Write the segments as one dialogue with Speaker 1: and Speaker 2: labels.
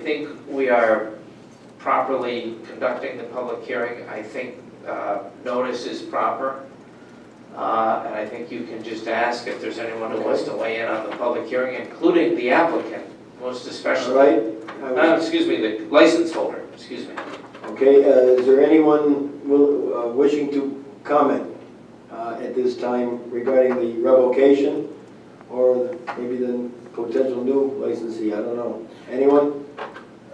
Speaker 1: think we are properly conducting the public hearing. I think uh, notice is proper. Uh, And I think you can just ask if there's anyone who wants to weigh in on the public hearing, including the applicant, most
Speaker 2: All
Speaker 1: especially.
Speaker 2: right? I
Speaker 1: Uh,
Speaker 2: was-
Speaker 1: Excuse me, the license holder, excuse me.
Speaker 2: Okay, uh, is there anyone will- uh, wishing to comment uh, at this time regarding the revocation or maybe the potential new licensee? I don't know. Anyone?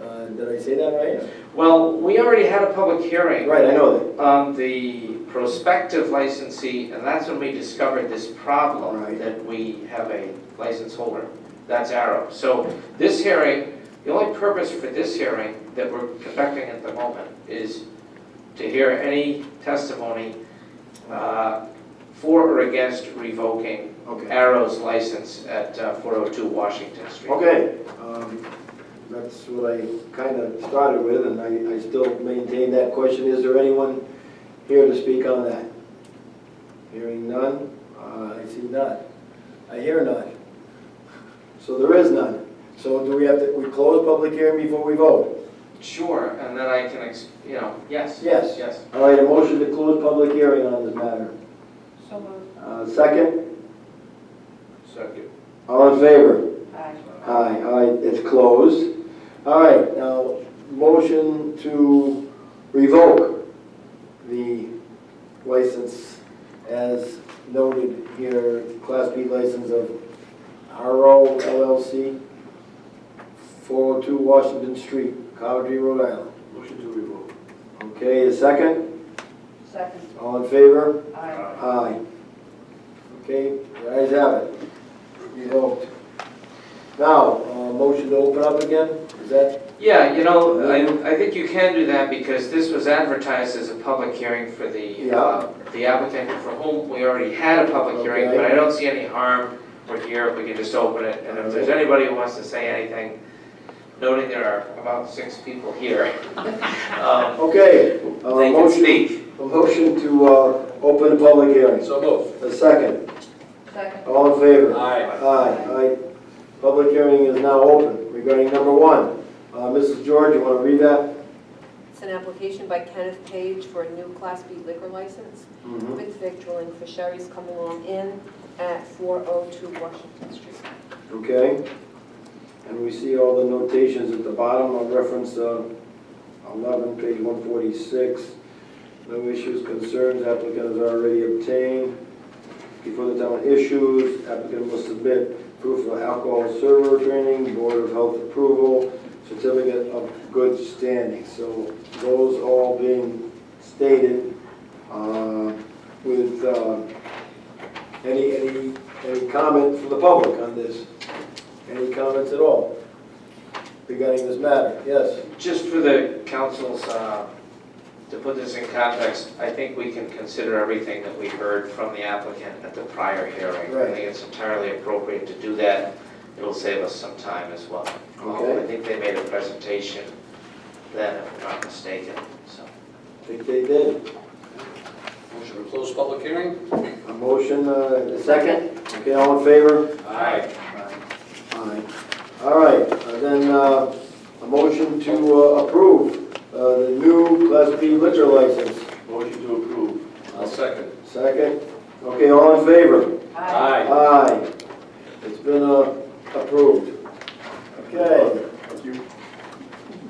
Speaker 2: Uh, Did I say that right?
Speaker 1: Well, we already had a public hearing
Speaker 2: Right, I know that.
Speaker 1: on Um, the prospective licensee, and that's when we discovered this problem
Speaker 2: Right.
Speaker 1: that we have a license holder. That's Arrow. So this hearing, the only purpose for this hearing that we're conducting at the moment is to hear any testimony uh, for or against revoking
Speaker 2: Okay.
Speaker 1: Arrow's license at uh, 402 Washington Street.
Speaker 2: Okay, um, that's what I kind of started with, and I, I still maintain that question. Is there anyone here to speak on that? Hearing none, Uh, I see none. I hear none. So there is none. So do we have to, we close public hearing before we vote?
Speaker 1: Sure, and then I can, ex- you know, yes.
Speaker 2: Yes.
Speaker 1: Yes.
Speaker 2: All right, a motion to close public hearing on this matter.
Speaker 3: So moved.
Speaker 2: Uh, Second,
Speaker 1: Second.
Speaker 2: all in favor?
Speaker 3: Aye.
Speaker 2: Aye, aye, it's closed. All right, now, motion to revoke the license as noted here, Class B license of RO LLC, 402 Washington Street, Coventry, Rhode Island.
Speaker 4: Motion to revoke.
Speaker 2: Okay, a second?
Speaker 3: Second.
Speaker 2: All in favor?
Speaker 3: Aye.
Speaker 2: Aye. Okay, the ayes have it. Revoked. Now, uh, motion to open up again, is that?
Speaker 1: Yeah, you know, I, I think you can do that because this was advertised as a public hearing for the, uh, the applicant for whom we already had a public hearing, but I don't see any harm. We're here, we can just open it, and if there's anybody who wants to say anything, noting there are about six people here, um, they
Speaker 2: Okay, a
Speaker 1: can
Speaker 2: Uh, motion,
Speaker 1: speak.
Speaker 2: a motion to uh, open the public hearing.
Speaker 4: So moved.
Speaker 2: A second,
Speaker 3: Second.
Speaker 2: all in favor?
Speaker 4: Aye.
Speaker 2: Aye, aye. Public hearing is now open regarding number one. Uh, Mrs. George, you want to read that?
Speaker 5: It's an application by Kenneth Page for a new Class B liquor license
Speaker 1: Mm-hmm.
Speaker 5: with victualling for Sherry's Coming Along Inn at 402 Washington Street.
Speaker 2: Okay. And we see all the notations at the bottom of reference uh, 11, page 146. No issues, concerns, applicant has already obtained. Before the town issues, applicant must submit proof of alcohol server training, Board of Health approval, certificate of good standing. So those all being stated uh, with uh, any, any, any comment from the public on this? Any comments at all regarding this matter? Yes?
Speaker 1: Just for the council's, uh, to put this in context, I think we can consider everything that we heard from the applicant at the prior hearing. I
Speaker 2: Right.
Speaker 1: think it's entirely appropriate to do that. It'll save us some time as well.
Speaker 2: Okay.
Speaker 1: I think they made a presentation then, if I'm not mistaken, so.
Speaker 2: I think they did.
Speaker 4: Motion to close public hearing?
Speaker 2: A motion, uh, a second? Okay, all in favor?
Speaker 4: Aye.
Speaker 2: Aye. All right, uh, then uh, a motion to uh, approve uh, the new Class B liquor license.
Speaker 4: Motion to approve. I'll second.
Speaker 2: Second? Okay, all in favor?
Speaker 4: Aye.
Speaker 2: Aye. It's been uh, approved. Okay.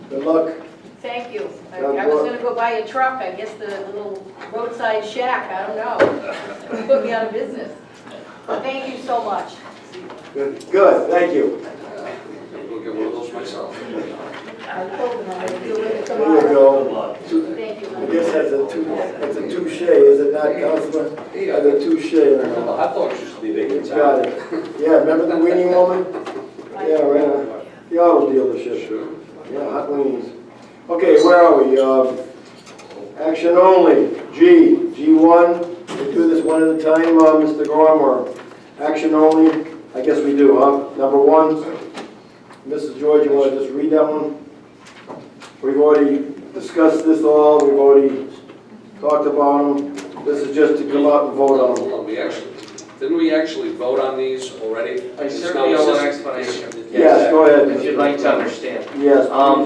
Speaker 2: Good luck.
Speaker 3: Thank you. I I was gonna go buy a truck, I guess the little roadside shack, I don't know. Put me out of business. Thank you so much.
Speaker 2: Good, Good. thank you.
Speaker 4: I'm gonna get one of those myself.
Speaker 3: I told them I would do it
Speaker 2: There you
Speaker 3: tomorrow.
Speaker 2: go.
Speaker 3: Thank
Speaker 2: I
Speaker 3: you.
Speaker 2: guess that's a two, that's a touche, is it not, Councilman?
Speaker 4: Yeah,
Speaker 2: That's a touche.
Speaker 4: the hot dogs used to be big in
Speaker 2: Got
Speaker 4: town.
Speaker 2: it. Yeah, remember the weenie woman? Yeah, right, on. the auto dealership,
Speaker 4: Sure.
Speaker 2: yeah, hot weenies. Okay, where are we? Um, Action only, G, G1, we do this one at a time, uh, Mr. Gorm, or action only? I guess we do, huh? Number one, Mrs. George, you want to just read that one? We've already discussed this all, we've already talked about them, this is just to come out and vote on them.
Speaker 4: Hold on, we actually, didn't we actually vote on these already?
Speaker 1: I certainly owe an explanation.
Speaker 4: It's-
Speaker 1: Yes, go ahead.
Speaker 2: If you'd like to understand.
Speaker 1: Yes,
Speaker 2: Um,